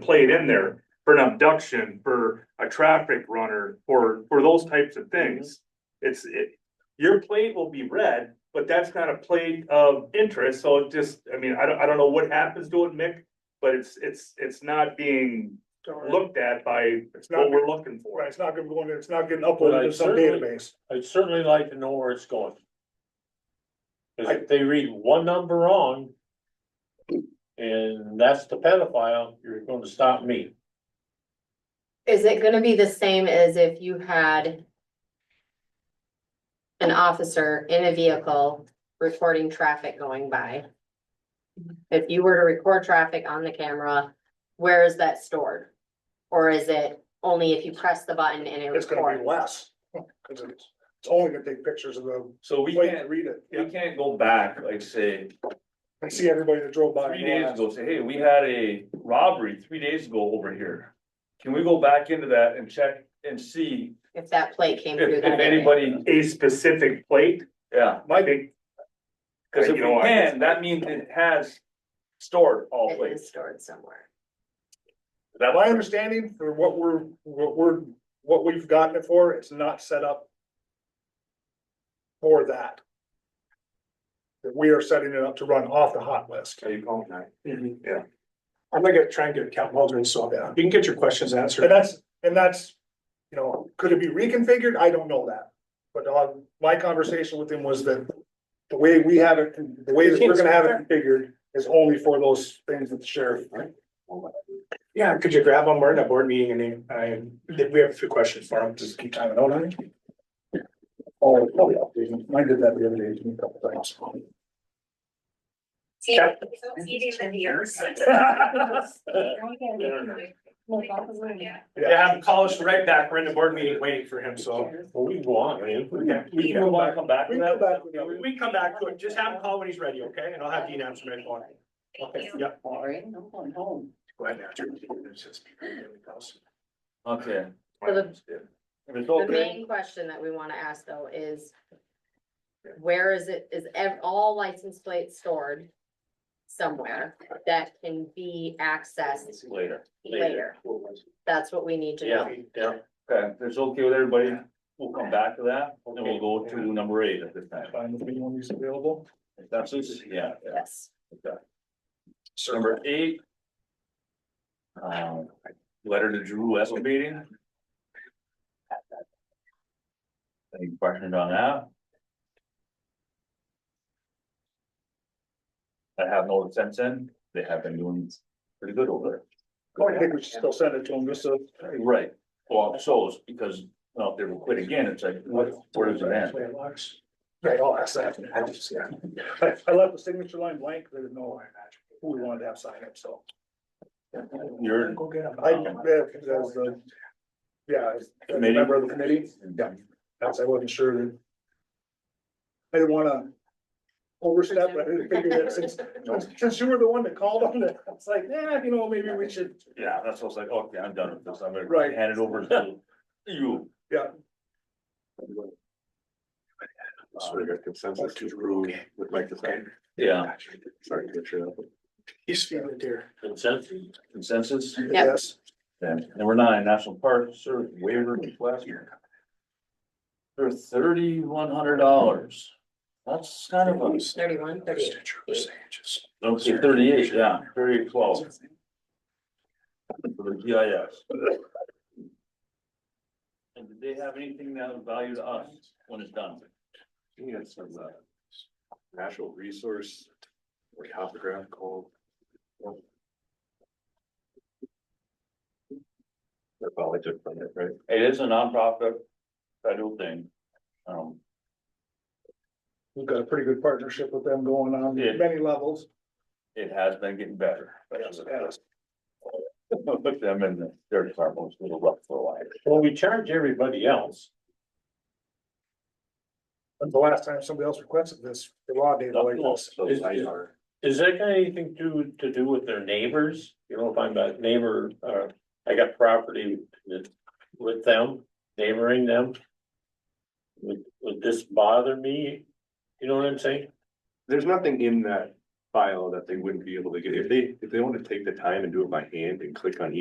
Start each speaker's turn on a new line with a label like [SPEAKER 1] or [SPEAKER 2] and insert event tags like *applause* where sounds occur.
[SPEAKER 1] played in there for an abduction, for a traffic runner, for, for those types of things.
[SPEAKER 2] Mm-hmm.
[SPEAKER 1] It's, it, your plate will be red, but that's not a plate of interest, so it just, I mean, I don't, I don't know what happens to it, Mick. But it's, it's, it's not being looked at by
[SPEAKER 2] It's not,
[SPEAKER 1] what we're looking for.
[SPEAKER 2] right, it's not gonna go in, it's not getting
[SPEAKER 3] But
[SPEAKER 2] uploaded
[SPEAKER 3] I
[SPEAKER 2] to some
[SPEAKER 3] certainly-
[SPEAKER 2] database.
[SPEAKER 3] I'd certainly like to know where it's going. 'Cause
[SPEAKER 2] I-
[SPEAKER 3] if they read one number wrong. And that's the pedophile, you're gonna stop me.
[SPEAKER 4] Is it gonna be the same as if you had an officer in a vehicle recording traffic going by? If you were to record traffic on the camera, where is that stored? Or is it only if you press the button and it
[SPEAKER 2] It's gonna
[SPEAKER 4] records?
[SPEAKER 2] be less, cause it's, it's only gonna take pictures of the,
[SPEAKER 5] So we
[SPEAKER 2] wait,
[SPEAKER 5] can't,
[SPEAKER 2] read it,
[SPEAKER 5] we can't go back, like say,
[SPEAKER 2] and see everybody that drove by.
[SPEAKER 5] three days ago, say, hey, we had a robbery three days ago over here. Can we go back into that and check and see
[SPEAKER 4] If that plate came
[SPEAKER 5] if,
[SPEAKER 4] through
[SPEAKER 5] if
[SPEAKER 4] that area?
[SPEAKER 5] anybody,
[SPEAKER 1] A specific plate,
[SPEAKER 5] yeah,
[SPEAKER 1] I think,
[SPEAKER 5] cause if we
[SPEAKER 1] You know, I-
[SPEAKER 5] can, that means it has stored all
[SPEAKER 4] It is
[SPEAKER 5] places.
[SPEAKER 4] stored somewhere.
[SPEAKER 5] That
[SPEAKER 2] My understanding for what we're, what we're, what we've gotten it for, it's not set up. For that. That we are setting it up to run off the hot list.
[SPEAKER 1] are you calling that?
[SPEAKER 2] *laughs*
[SPEAKER 6] I'm gonna get- try and get a Cal Waldron, so
[SPEAKER 2] Yeah.
[SPEAKER 6] you can get your questions
[SPEAKER 2] And
[SPEAKER 6] answered.
[SPEAKER 2] that's, and that's, you know, could it be reconfigured? I don't know that. But uh, my conversation with him was that the way we have it, the way that we're gonna have it configured is only for those things that the sheriff.
[SPEAKER 6] Yeah, could you grab them? We're in a board meeting and they- I, did we have a few questions for them? Just keep timing out on it.
[SPEAKER 2] Oh, probably updating. I did that the other day to me a couple times.
[SPEAKER 7] See, eating the ears.
[SPEAKER 2] Yeah,
[SPEAKER 6] I'm calling us right back. We're in the board meeting waiting for him, so.
[SPEAKER 3] Well, we go on, man. We
[SPEAKER 6] Yeah,
[SPEAKER 3] can-
[SPEAKER 6] we
[SPEAKER 3] we
[SPEAKER 6] can go
[SPEAKER 3] wanna
[SPEAKER 6] back.
[SPEAKER 3] come back to
[SPEAKER 2] We
[SPEAKER 3] that.
[SPEAKER 2] can go back to that.
[SPEAKER 6] We can come back to it. Just have him call when he's ready, okay? And I'll have Dean answer my phone. Okay, yeah.
[SPEAKER 7] I'm going home.
[SPEAKER 6] Go ahead and answer. It's just-
[SPEAKER 5] Okay.
[SPEAKER 4] So the-
[SPEAKER 5] If it's
[SPEAKER 4] The
[SPEAKER 5] okay,
[SPEAKER 4] main question that we wanna ask though is. Where is it, is ev- all license plates stored? Somewhere that can be accessed
[SPEAKER 5] later,
[SPEAKER 4] later. That's what we need to know.
[SPEAKER 3] Yeah, yeah.
[SPEAKER 5] okay, if it's okay with everybody, we'll come back to that, then we'll go to number eight at this time.
[SPEAKER 2] Find if anyone who's available.
[SPEAKER 5] If That's, it, yeah, yeah.
[SPEAKER 4] Yes.
[SPEAKER 5] So number eight. Um, letter to Drew Escobedo. Any questions on that? I have no sense in, they have been doing pretty good over
[SPEAKER 2] I think we should still send it to him, just so.
[SPEAKER 5] there. Right, well, so it's because, well, if they were quit again, it's like, what, where does it end?
[SPEAKER 2] Right, I'll ask that. I just, yeah. I, I left the signature line blank, there didn't know who we wanted to have sign it, so.
[SPEAKER 5] You're.
[SPEAKER 6] Go get him.
[SPEAKER 2] I, yeah, as the, yeah, as a
[SPEAKER 5] Committee?
[SPEAKER 2] member of the committee, yeah, that's, I wasn't sure that. I didn't wanna overstep, but I didn't figure that since, since you were the one that called on it, it's like, yeah, you know, maybe we should,
[SPEAKER 5] Yeah, that's what I was like, okay, I'm done with this, I'm
[SPEAKER 2] Right.
[SPEAKER 5] gonna hand it over to
[SPEAKER 2] *laughs*
[SPEAKER 5] you.
[SPEAKER 2] Yeah.
[SPEAKER 5] Um,
[SPEAKER 6] got consensus to Drew would like to say.
[SPEAKER 5] Yeah,
[SPEAKER 6] Sorry to get you up. He's feeling it dear.
[SPEAKER 3] Consensus?
[SPEAKER 5] consensus,
[SPEAKER 4] Yep.
[SPEAKER 2] yes.
[SPEAKER 5] then, number nine, National Park Service waiver request. For thirty-one hundred dollars, that's kind of a,
[SPEAKER 4] Thirty-one, thirty-eight.
[SPEAKER 5] okay, thirty-eight, yeah, thirty-eight twelve. For the G I S. And did they have anything that would value to us when it's done?
[SPEAKER 6] Yeah, it's some, uh, natural resource, or topographical. That's all I took from it, right?
[SPEAKER 5] It is a nonprofit federal thing. Um, *laughs*
[SPEAKER 2] We've got a pretty good partnership with them going on,
[SPEAKER 5] Yeah.
[SPEAKER 2] many levels.
[SPEAKER 5] it has been getting better. but it's- Put them in their department, was a little rough for a while.
[SPEAKER 3] Well, we charge everybody else.
[SPEAKER 2] When's the last time somebody else requested this, the law data like this?
[SPEAKER 5] So,
[SPEAKER 3] Is- is- Is that got anything to, to do with their neighbors? You know, if I'm a neighbor, uh, I got property with, with them, neighboring them? Would, would this bother me? You know what I'm saying?
[SPEAKER 6] There's nothing in that file that they wouldn't be able to get, if they, if they want to take the time and do it by hand and click on each